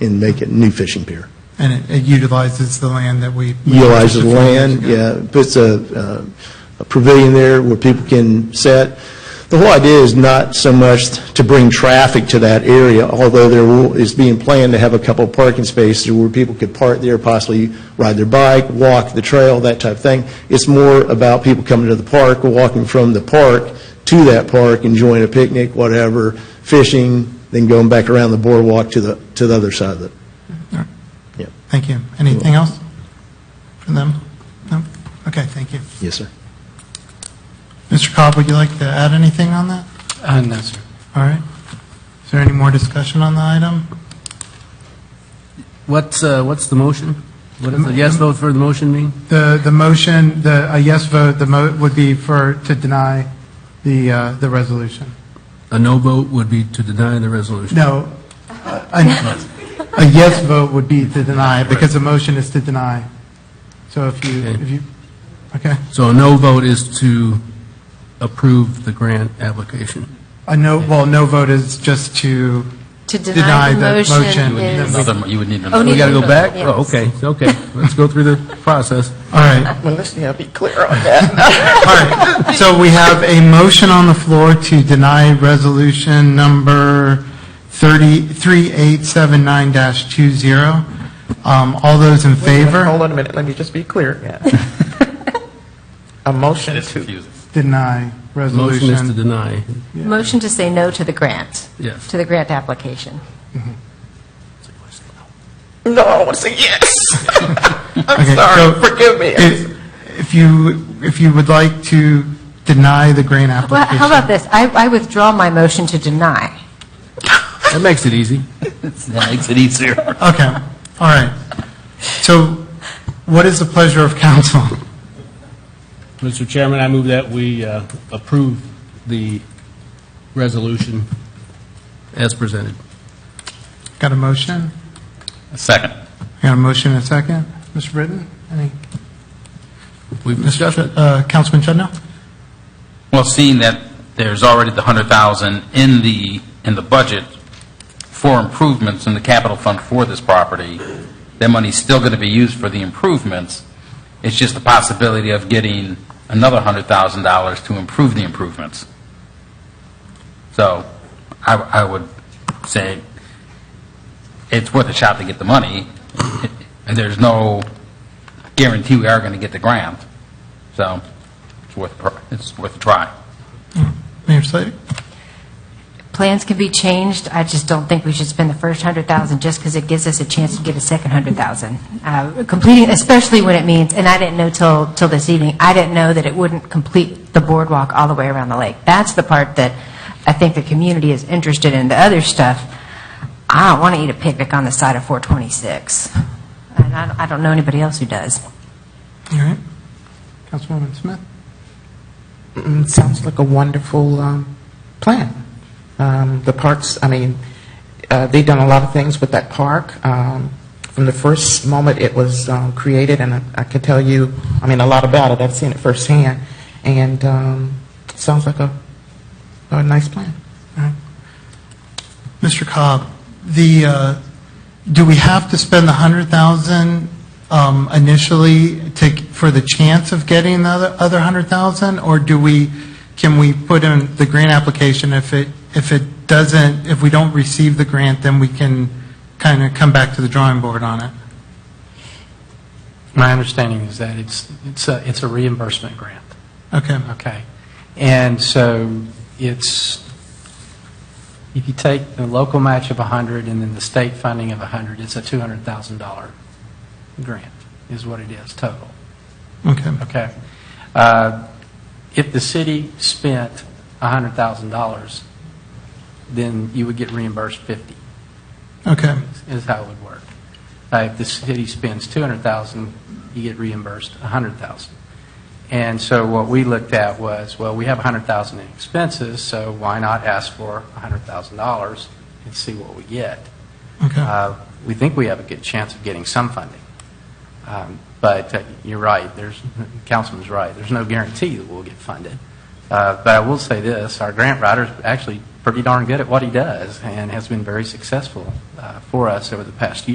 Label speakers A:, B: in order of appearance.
A: and make it new fishing pier.
B: And it- it utilizes the land that we. we purchased a
A: utilizes
B: few years
A: land, yeah,
B: ago.
A: puts a uh, a pavilion there where people can sit. The whole idea is not so much to bring traffic to that area, although there will- is being planned to have a couple of parking spaces where people could park there, possibly ride their bike, walk the trail, that type of thing. It's more about people coming to the park, walking from the park to that park, enjoying a picnic, whatever, fishing, then going back around the boardwalk to the, to the other side of it.
B: Thank you. Anything else from them? No? Okay, thank you.
A: Yes, sir.
B: Mr. Cobb, would you like to add anything on that?
C: Uh, no, sir.
B: All right. Is there any more discussion on the item?
C: What's, uh, what's the motion? What is the yes vote for the motion mean?
B: The, the motion, the, a yes vote, the mo, would be for, to deny the, uh, the resolution.
C: A no vote would be to deny the resolution.
B: No, a, a yes vote would be to deny, because the motion is to deny. So if you,
C: Okay.
B: if you, okay.
C: So a no vote is to approve the grant application.
B: A Uh, no, well, no vote is just to
D: To
B: deny
D: deny the
B: the motion.
D: motion is-
B: All
E: Another- You would need
D: Oh,
E: another.
D: no.
C: We got to go back?
D: Yes.
C: Oh, okay, okay. Let's go through the process.
B: right,
F: Well, let's now be clear on that.
B: all right. So we have a motion on the floor to deny resolution number 30 3879-20. Um, All those in favor?
F: Hold on a minute, let me just be clear. Yeah. A motion
E: It's
F: to,
E: confusing.
B: Deny
C: Motion is to
B: resolution.
C: deny,
D: Motion to say no to the grant,
C: yes.
D: to the grant application.
F: no, I want to say yes. I'm
B: Okay,
F: sorry,
B: so-
F: forgive me.
B: If if you, if you would like to deny the grant
D: Well,
B: application.
D: how about this? I I withdraw my motion to deny.
C: That makes it easy.
E: That makes it easier.
B: Okay, all right. So what is the pleasure of council?
G: Mr. Chairman, I move that we uh, approve the resolution.
C: As presented.
B: Got a motion?
E: Second.
B: Got a motion and a second? Mr. Britton? Any?
C: We've discussed it.
B: Uh, Councilman Chudnow?
E: Well, seeing that there's already the 100,000 in the, in the budget for improvements in the capital fund for this property, that money's still going to be used for the improvements. It's just the possibility of getting another $100,000 to improve the improvements. So I, I would say it's worth a shot to get the money, and there's no guarantee we are going to get the grant. So it's worth, a pr- it's worth a try.
B: Mayor Slavy?
D: Plans can be changed, I just don't think we should spend the first 100,000 just because it gives us a chance to get a second 100,000. Uh, Completing, especially when it means, and I didn't know till, till this evening, I didn't know that it wouldn't complete the boardwalk all the way around the lake. That's the part that I think the community is interested in, the other stuff, I don't want to eat a picnic on the side of 426, and I don't- I don't know anybody else who does.
B: All right. Councilwoman Smith?
F: Mm, Sounds like a wonderful um, plan. Um, The parks, I mean, uh, they've done a lot of things with that park. Um, From the first moment it was um, created, and I- I could tell you, I mean, a lot about it, I've seen it firsthand, and um, sounds like a, a nice plan.
B: Mr. Cobb, the, uh, do we have to spend the 100,000 um, initially to, for the chance of getting the other other 100,000? Or do we, can we put in the grant application if it, if it doesn't, if we don't receive the grant, then we can kind of come back to the drawing board on it?
H: My understanding is that it's, it's a, it's a reimbursement grant,
B: Okay,
H: okay? And so it's, if you take the local match of 100 and then the state funding of 100, it's a $200,000 grant, is what it is total,
B: okay.
H: okay? Uh, If the city spent $100,000, then you would get reimbursed 50.
B: Okay,
H: is how it would work. Uh, If the city spends 200,000, you get reimbursed 100,000. And so what we looked at was, well, we have 100,000 in expenses, so why not ask for $100,000 and see what we get?
B: okay.
H: Uh, We think we have a good chance of getting some funding. Um, But uh, you're right, there's, Councilman's right, there's no guarantee that we'll get funded. Uh, But I will say this, our grant writers actually pretty darn good at what he does and has been very successful uh, for us over the past year.